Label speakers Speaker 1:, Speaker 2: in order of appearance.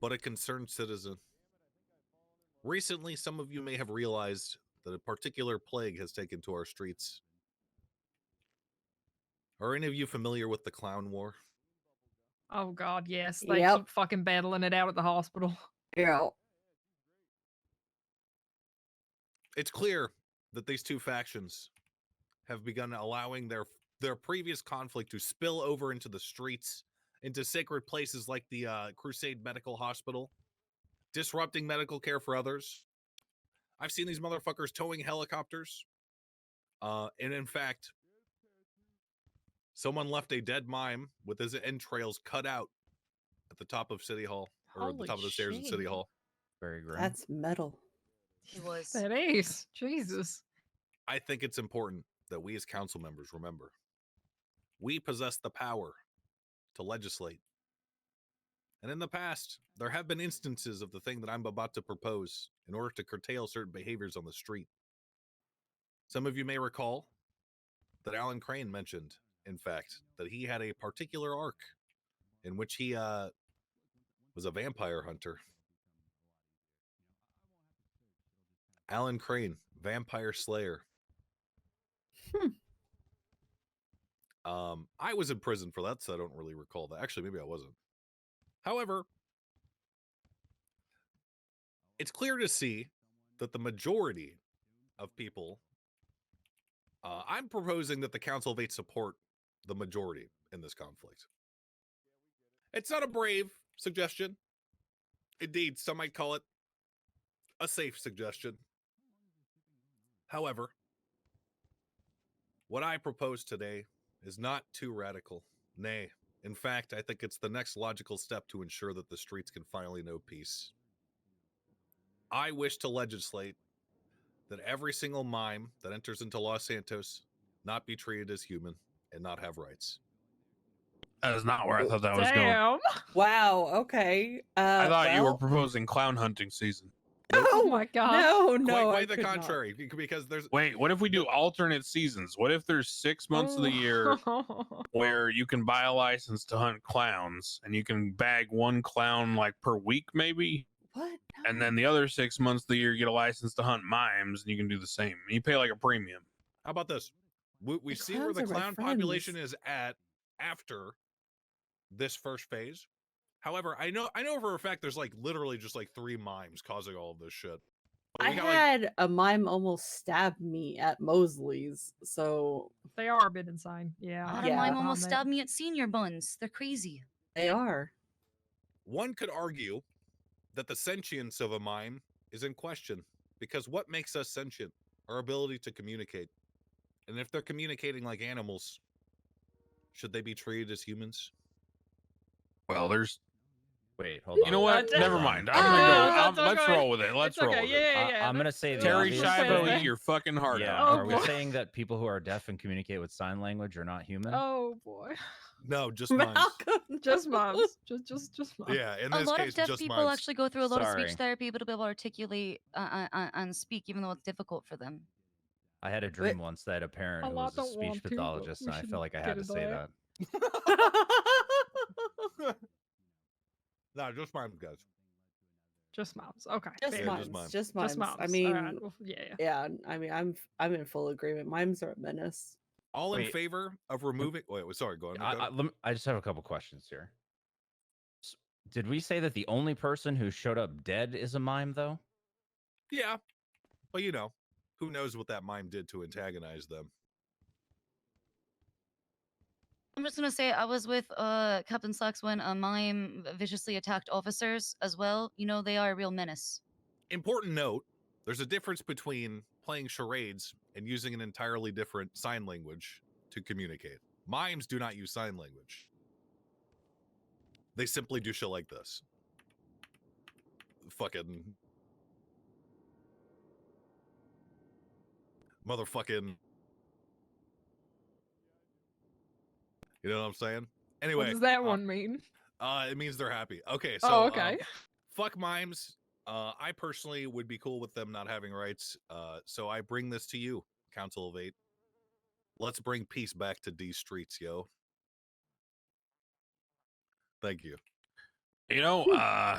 Speaker 1: but a concerned citizen. Recently, some of you may have realized that a particular plague has taken to our streets. Are any of you familiar with the Clown War?
Speaker 2: Oh God, yes. They
Speaker 3: Yep.
Speaker 2: keep fucking battling it out at the hospital.
Speaker 3: Yeah.
Speaker 1: It's clear that these two factions have begun allowing their their previous conflict to spill over into the streets, into sacred places like the uh, Crusade Medical Hospital, disrupting medical care for others. I've seen these motherfuckers towing helicopters. Uh, and in fact, someone left a dead mime with his entrails cut out at the top of City Hall or at the
Speaker 4: Holy
Speaker 1: top of the stairs in City
Speaker 4: shit.
Speaker 1: Hall.
Speaker 5: Very grim.
Speaker 3: That's metal.
Speaker 4: He was.
Speaker 2: That is. Jesus.
Speaker 1: I think it's important that we as council members remember we possess the power to legislate. And in the past, there have been instances of the thing that I'm about to propose in order to curtail certain behaviors on the street. Some of you may recall that Alan Crane mentioned, in fact, that he had a particular arc in which he uh, was a vampire hunter. Alan Crane, Vampire Slayer. Um, I was in prison for that, so I don't really recall that. Actually, maybe I wasn't. However, it's clear to see that the majority of people, uh, I'm proposing that the Council of Eight support the majority in this conflict. It's not a brave suggestion. Indeed, some might call it a safe suggestion. However, what I propose today is not too radical. Nay, in fact, I think it's the next logical step to ensure that the streets can finally know peace. I wish to legislate that every single mime that enters into Los Santos not be treated as human and not have rights.
Speaker 5: That is not where I thought that was going.
Speaker 2: Damn.
Speaker 3: Wow. Okay. Uh,
Speaker 5: I thought you were
Speaker 3: well- uh,
Speaker 5: proposing clown hunting season.
Speaker 2: Oh
Speaker 3: No,
Speaker 2: my God.
Speaker 3: No, no.
Speaker 1: quite
Speaker 3: I
Speaker 1: quite the
Speaker 3: could not.
Speaker 1: contrary, be- because there's
Speaker 5: Wait, what if we do alternate seasons? What if there's six months of the
Speaker 2: Oh.
Speaker 5: year where you can buy a license to hunt clowns and you can bag one clown like per week, maybe?
Speaker 3: What?
Speaker 5: And then the other six months of the year, you get a license to hunt mimes and you can do the same. You pay like a premium.
Speaker 1: How about this? We, we
Speaker 3: The
Speaker 1: see where the
Speaker 3: clowns are my
Speaker 1: clown population is at after this first phase. However, I know I know for a fact there's like literally just like three mimes causing all of this shit. But
Speaker 3: I
Speaker 1: we got, like,
Speaker 3: had a mime almost stab me at Mosley's, so
Speaker 2: they are a bit insane. Yeah. Um, I
Speaker 3: Bottom
Speaker 4: Bottom
Speaker 3: Yeah.
Speaker 2: can get
Speaker 4: line
Speaker 3: line
Speaker 4: almost
Speaker 2: behind that.
Speaker 4: stabbed me at senior buns. They're crazy.
Speaker 3: they are.
Speaker 1: one could argue that the sentience of a mime is in question because what makes us sentient? Our ability to communicate. And if they're communicating like animals, should they be treated as humans?
Speaker 5: Well, there's.
Speaker 6: Wait, hold on.
Speaker 5: You know what?
Speaker 2: Uh,
Speaker 5: Never mind. I'm
Speaker 3: uh,
Speaker 5: gonna go.
Speaker 2: that's
Speaker 5: I'm- let's
Speaker 2: okay.
Speaker 5: roll with it. Let's
Speaker 2: It's
Speaker 5: roll
Speaker 2: okay.
Speaker 5: with
Speaker 2: Yeah,
Speaker 5: it.
Speaker 2: yeah,
Speaker 6: I-
Speaker 2: yeah.
Speaker 6: I'm gonna
Speaker 2: that's-
Speaker 6: say the
Speaker 5: Terry
Speaker 6: obvious
Speaker 5: Schiavo,
Speaker 6: thing.
Speaker 5: eat your fucking heart
Speaker 6: yeah,
Speaker 5: out.
Speaker 2: Oh,
Speaker 6: are we
Speaker 2: boy.
Speaker 6: saying that people who are deaf and communicate with sign language are not human?
Speaker 2: Oh boy.
Speaker 1: No, just mimes.
Speaker 2: Just moms. just just just moms.
Speaker 1: Yeah, in
Speaker 4: A
Speaker 1: this
Speaker 4: lot
Speaker 1: case,
Speaker 4: of deaf
Speaker 1: just
Speaker 4: people
Speaker 1: mimes.
Speaker 4: actually go through a lot of
Speaker 6: Sorry.
Speaker 4: speech therapy to be able to articulate uh, uh, uh, and speak, even though it's difficult for them.
Speaker 6: I had a dream once that a parent
Speaker 2: A
Speaker 6: who
Speaker 2: lot
Speaker 6: was a
Speaker 2: don't want
Speaker 6: speech
Speaker 2: to, but
Speaker 6: pathologist,
Speaker 2: we
Speaker 6: and I
Speaker 2: shouldn't
Speaker 6: felt like I
Speaker 2: get
Speaker 6: had to
Speaker 2: into
Speaker 6: say
Speaker 2: that.
Speaker 6: that.
Speaker 1: No, just mimes, guys.
Speaker 2: Just moms. Okay.
Speaker 3: just
Speaker 2: fair.
Speaker 1: Yeah, just
Speaker 3: mimes.
Speaker 1: mimes.
Speaker 3: Just mimes.
Speaker 2: Just moms.
Speaker 3: I
Speaker 2: All
Speaker 3: mean,
Speaker 2: right, well, yeah, yeah.
Speaker 3: yeah. I mean, I'm I'm in full agreement. Mimes are a menace.
Speaker 1: All in
Speaker 6: Wait.
Speaker 1: favor of removing. Wait, wait, sorry, go on.
Speaker 6: I,
Speaker 1: go
Speaker 6: I,
Speaker 1: on.
Speaker 6: lem- I just have a couple questions here. S- Did we say that the only person who showed up dead is a mime, though?
Speaker 1: yeah, but you know, who knows what that mime did to antagonize them?
Speaker 4: I'm just gonna say I was with uh, Captain Slacks when a mime viciously attacked officers as well. You know they are a real menace.
Speaker 1: Important note: there's a difference between playing charades and using an entirely different sign language to communicate. Mimes do not use sign language; they simply do shit like this. Fucking motherfucking. You know what I'm saying?
Speaker 2: What
Speaker 1: Anyway,
Speaker 2: does that
Speaker 1: uh,
Speaker 2: one mean?
Speaker 1: Uh, it means they're happy. Okay, so
Speaker 2: oh,
Speaker 1: um,
Speaker 2: okay.
Speaker 1: fuck mimes. Uh, I personally would be cool with them not having rights. Uh, so I bring this to you, Council of Eight. Let's bring peace back to these streets, yo. Thank you.
Speaker 5: You know, uh,